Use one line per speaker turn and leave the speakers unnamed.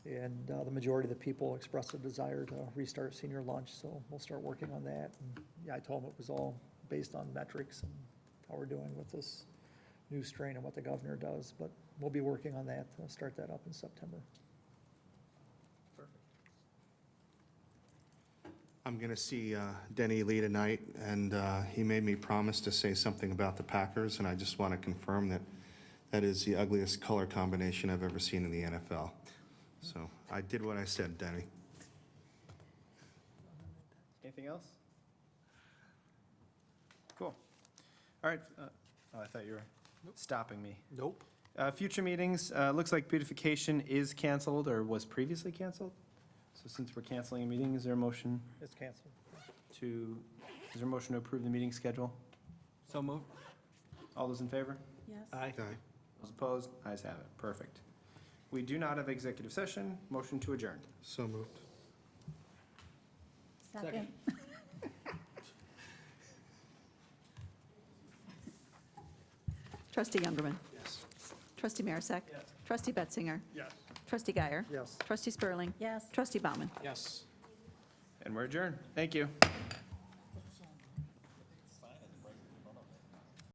and uh, the majority of the people expressed a desire to restart senior lunch, so we'll start working on that. And, Yeah, I told them it was all based on metrics and how we're doing with this new strain and what the governor does, but we'll be working on that, to start that up in September.
I'm going to see uh, Denny Lee tonight, and uh, he made me promise to say something about the Packers, and I just want to confirm that that is the ugliest color combination I've ever seen in the NFL. So I did what I said, Denny.
Anything else? Cool. All right, uh, oh, I thought you were stopping me.
Nope.
Uh, Future meetings, uh, looks like beautification is canceled or was previously canceled. So since we're canceling a meeting, is there a motion
It's canceled.
to, is there a motion to approve the meeting schedule?
So moved. Uh,
All those in favor?
Yes.
Aye.
Those opposed? Ayes have it. Perfect. We do not have executive session. Motion to adjourn.
So moved.
Second. Trustee Youngerman.
Yes.
Trustee Marisak.
Yes.
Trustee Betzinger.
Yes.
Trustee Guyer.
Yes.
Trustee Spurling. Yes. Trustee Bauman.
Yes.
And we're adjourned. Thank you.